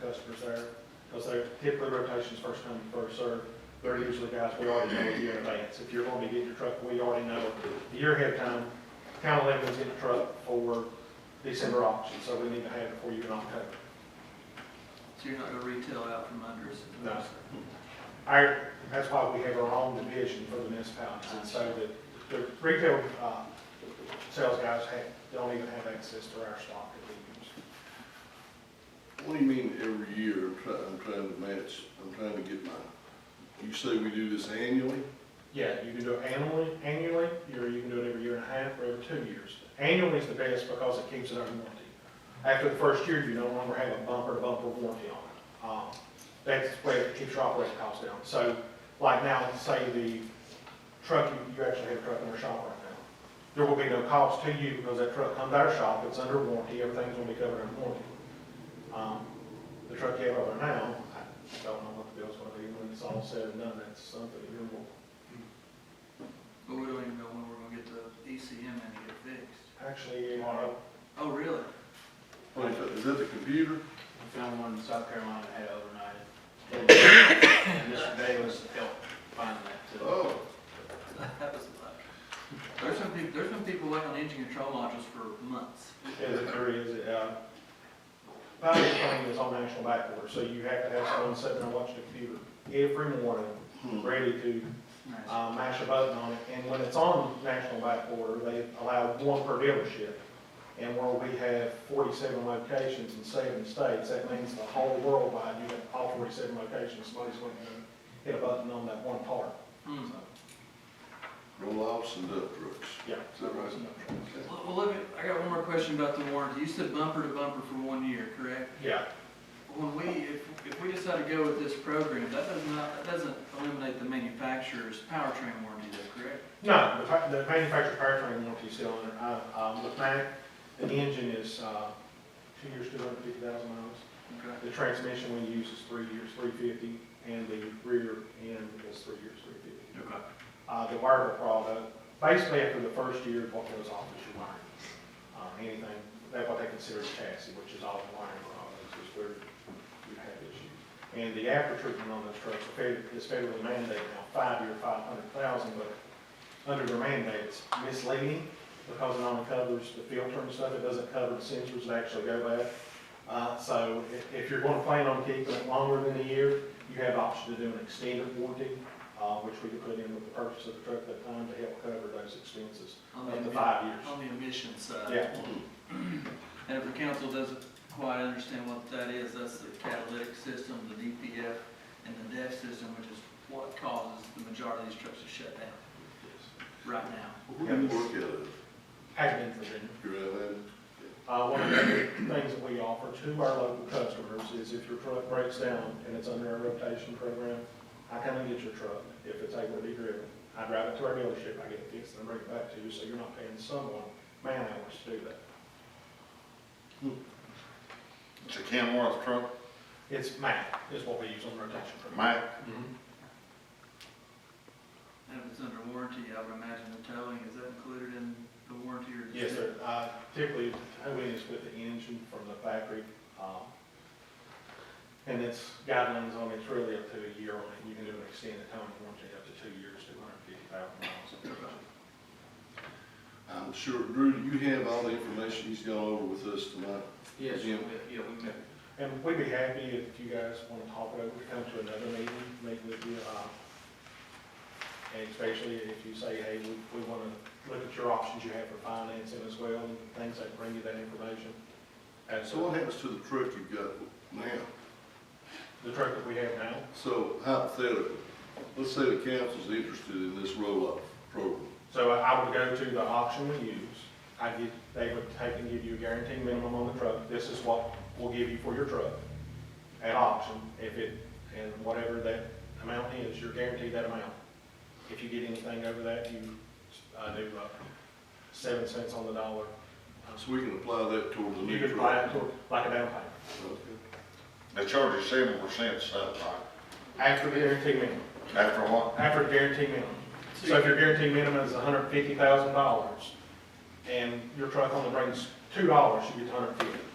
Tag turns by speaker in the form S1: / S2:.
S1: customers there. Because they're typically rotations first come, first served. They're usually guys we already know a year in advance. If you're going to get your truck, we already know a year ahead of time. County Levin's getting a truck for December auction, so we need to have it for you in October.
S2: So you're not gonna retail out from under us?
S1: No. Our, that's why we have our own division for the municipalities, and so the, the retail, uh, sales guys have, don't even have access to our stock that we use.
S3: What do you mean every year? I'm trying, I'm trying to match, I'm trying to get my, you say we do this annually?
S1: Yeah, you can do it annually, annually, or you can do it every year and a half, or every two years. Annually is the best because it keeps it under warranty. After the first year, you no longer have a bumper to bumper warranty on it. Um, That's the way it keeps your operating costs down. So like now, say the truck, you- you actually have a truck in our shop right now. There will be no cost to you because that truck comes out of our shop, it's under warranty, everything's gonna be covered under warranty. Um, The truck you have over now, I don't know what the bill's gonna be when it's all said and done, that's something you're gonna
S2: But we don't even know when we're gonna get the E ECM and get it fixed.
S1: Actually, uh,
S2: Oh, really?
S3: What is that- Is that the computer?
S4: I found one in South Carolina that had overnighted. And Mr. Bayless helped find that too.
S3: Oh,
S2: That was a lot. There's some people, there's been people waiting on engine control modules for months.
S1: as it there is, uh, Pioneer Plan is on national backorder, so you have to have someone sitting there watching the computer every morning,
S3: hmm.
S1: ready to,
S2: Nice.
S1: uh, mash a button on it. And when it's on national backorder, they allow one per dealership. And where we have forty-seven locations in seven states, that means the whole worldwide, you have all forty-seven locations, somebody's going to hit a button on that one part.
S2: Hmm.
S3: roll offs and dump trucks.
S1: Yeah.
S3: Is that right? Okay.
S2: Well, well, let me, I got one more question about the warranty. You said bumper to bumper for one year, correct?
S1: Yeah,
S2: When we, if, if we decide to go with this program, that does not, that doesn't eliminate the manufacturer's powertrain warranty though, correct?
S1: No, the fa- the manufacturer powertrain warranty is still on there. Uh, Um, with Mack, the engine is, uh, two years, two hundred and fifty thousand miles.
S2: Okay.
S1: The transmission we use is three years, three fifty, and the rear end is three years, three fifty.
S2: Okay.
S1: Uh, the wireable product, basically after the first year, what goes off is your wiring. Um, anything, that's what they consider chassis, which is all the wiring products, is where you have issues. And the aftertreatment on those trucks are fed- is federally mandated now, five-year, five hundred thousand, but under their mandate, it's misleading because it only covers the filter and stuff, it doesn't cover the sensors that actually go bad. Uh, so if, if you're gonna plan on keeping it longer than a year, you have the option to do an extended warranty, uh, which we could put in with the purchase of the truck at that time to help cover those expenses
S2: On
S1: up to
S2: the,
S1: five years.
S2: on the emission side.
S1: Yeah,
S3: Hmm.
S2: And if the council doesn't quite understand what that is, that's the catalytic system, the DPF, and the DEF system, which is what causes the majority of these trucks to shut down right now.
S3: Where do you work out of?
S1: Hackman, Virginia.
S3: You're out of Atlanta?
S1: Uh, one of the other things that we offer to our local customers is if your truck breaks down and it's under our rotation program, I come and get your truck if it's able to be driven. I drive it to our dealership, I get it fixed and I bring it back to you, so you're not paying someone man hours to do that.
S5: It's a Kenworth truck,
S1: It's MAC is what we use on rotation program.
S5: Mack,
S1: Mhm.
S2: And if it's under warranty, I would imagine the towing, is that included in the warranty or?
S1: Yes, sir. Uh, typically, towing is with the engine from the factory, um, and it's guidelines on it's really up to a year on it. You can do an extended towing warranty up to two years, two hundred and fifty thousand miles.
S3: I'm sure, Drew, do you have all the information he's gone over with us tonight?
S4: Yes,
S3: Yeah.
S4: yeah, we met.
S1: And we'd be happy if you guys want to talk about it, we come to another meeting, meet with you, uh, and especially if you say, hey, we, we want to look at your options you have for financing as well, and things that bring you that information. And
S3: So what
S1: so,
S3: happens to the truck you've got now?
S1: the truck that we have now,
S3: So hypothetically, let's say the council's interested in this roll-off program.
S1: So I- I would go to the auction we use, I get, they would take and give you a guaranteed minimum on the truck, this is what we'll give you for your truck at auction, if it, and whatever that amount is, you're guaranteed that amount. If you get anything over that, you, uh, do, uh, seven cents on the dollar.
S3: So we can apply that towards the
S1: You
S3: new
S1: could buy it
S3: truck.
S1: to- like a down payment,
S3: Okay.
S5: they charge you seven percent stuff, right?
S1: after the guaranteed minimum,
S5: After what?
S1: after the guaranteed minimum. So if your guaranteed minimum is hundred fifty thousand dollars, and your truck only brings two dollars, you get hundred fifty.